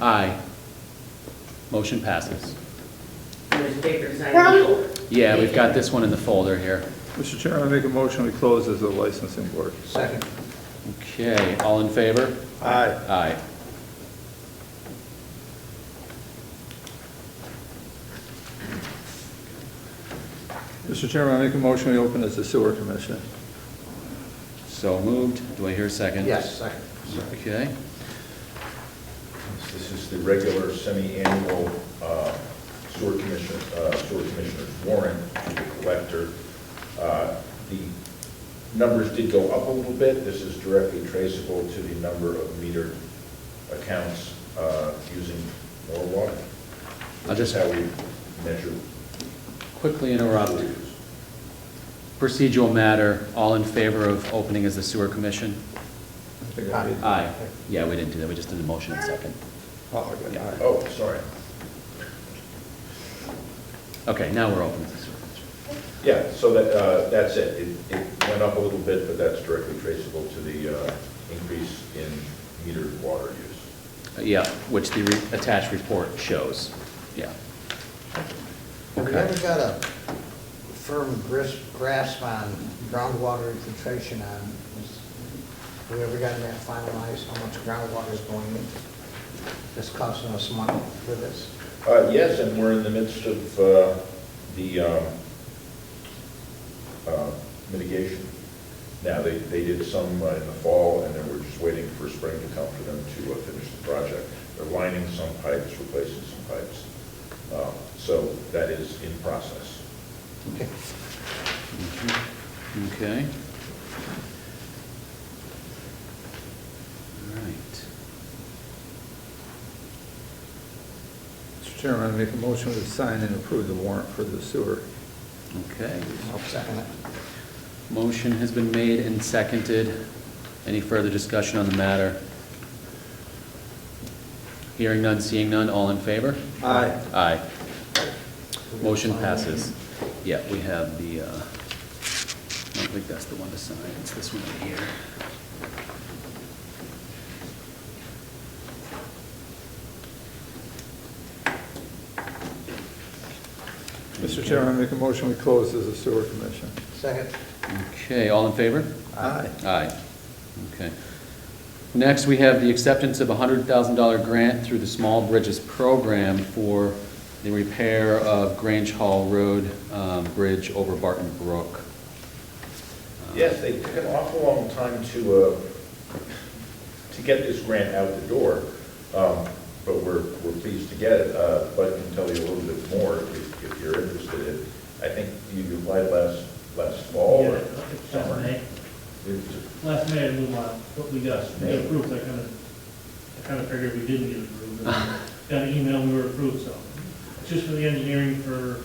Aye. Motion passes. Ms. Baker's item four. Yeah, we've got this one in the folder here. Mr. Chairman, I make a motion we close as a licensing board. Second. Okay, all in favor? Aye. Aye. Mr. Chairman, I make a motion we open as the sewer commission. So moved. Do I hear a second? Yes, second. Okay. This is the regular semi-annual uh, sewer commissioner, uh, sewer commissioner's warrant to the collector. Uh, The numbers did go up a little bit. This is directly traceable to the number of metered accounts uh, using more water. I'll Which is just- how we measure. Quickly interrupt. sewer use. Procedural matter, all in favor of opening as the sewer commission? I think I did. Aye. Yeah, we didn't do that. We just did the motion and second. Oh, I got aye. Oh, sorry. Okay, now we're open as the sewer commission. Yeah, so that, uh, that's it. It- It went up a little bit, but that's directly traceable to the uh, increase in metered water use. Uh, Yeah, which the re- attached report shows. Yeah. Have we ever got a firm gris- grasp on groundwater infiltration on, is- have we ever gotten that finalized, how much groundwater is going in? That's costing us money for this? Uh, Yes, and we're in the midst of uh, the um, uh, mitigation. Now, they, they did some uh, in the fall, and then we're just waiting for spring to come for them to uh, finish the project. They're lining some pipes, replacing some pipes. Uh, So that is in process. Okay. Okay. All right. Mr. Chairman, I make a motion to sign and approve the warrant for the sewer. Okay. I'll second it. Motion has been made and seconded. Any further discussion on the matter? Hearing none, seeing none, all in favor? Aye. Aye. Motion passes. Yeah, we have the, uh, I don't think that's the one to sign, it's this one right here. Mr. Chairman, I make a motion we close as a sewer commission. Second, Okay, all in favor? Aye. Aye. Okay. Next, we have the acceptance of a hundred thousand dollar grant through the Small Bridges Program for the repair of Grange Hall Road um, Bridge over Barton Brook. Yes, they took an awful long time to, uh, to get this grant out the door, um, but we're, we're pleased to get it. Uh, Bud can tell you a little bit more if if you're interested in, I think you applied last, last fall Yeah, or Last summer. May, It's- last May, we won, but we got, we got approved, I kind of, I kind of figured we didn't get approved. and Got an email, we were approved, so, it's just for the engineering for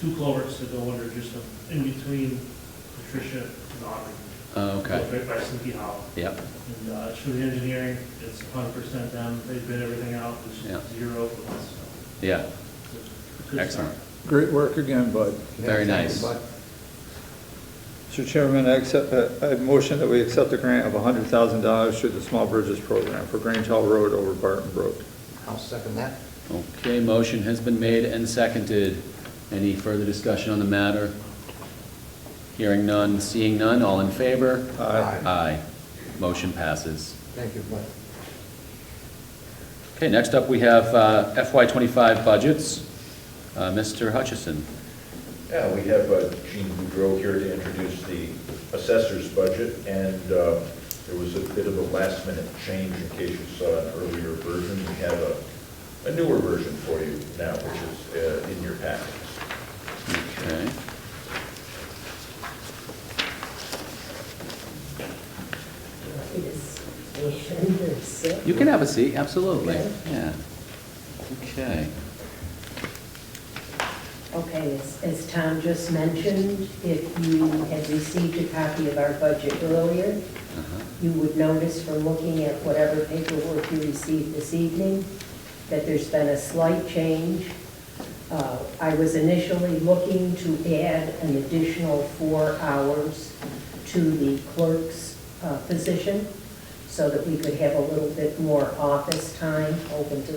two culverts to go under, just in between Patricia and Aubrey. Oh, Uh, Okay, Right by Sleepy Hollow. yep, And, uh, it's for the engineering, it's hundred percent them, they bid everything out, Yeah. it's zero for us, so. yeah, it's a good excellent. start. Great work again, bud. Very nice. but Mr. Chairman, I accept, uh, I I motion that we accept the grant of $100,000 through the Small Bridges Program for Grange Hall Road over Barton Brook. I'll second that. Okay, motion has been made and seconded. Any further discussion on the matter? Hearing none, seeing none, all in favor? Aye. Aye. Motion passes. Thank you, Bud. Okay, next up, we have uh, FY '25 budgets. Uh, Mr. Hutchison. Yeah, we have uh, Jean Boudreau here to introduce the assessor's budget, and uh, there was a bit of a last-minute change in case you saw an earlier version. We have a a newer version for you now, which is uh, in your packets. Okay. You can have a seat, absolutely, yeah. Okay. Okay, as, as Tom just mentioned, if you had received a copy of our budget earlier, uh-huh. you would notice from looking at whatever paperwork you received this evening, that there's been a slight change. Uh, I was initially looking to add an additional four hours to the clerk's uh, position so that we could have a little bit more office time open to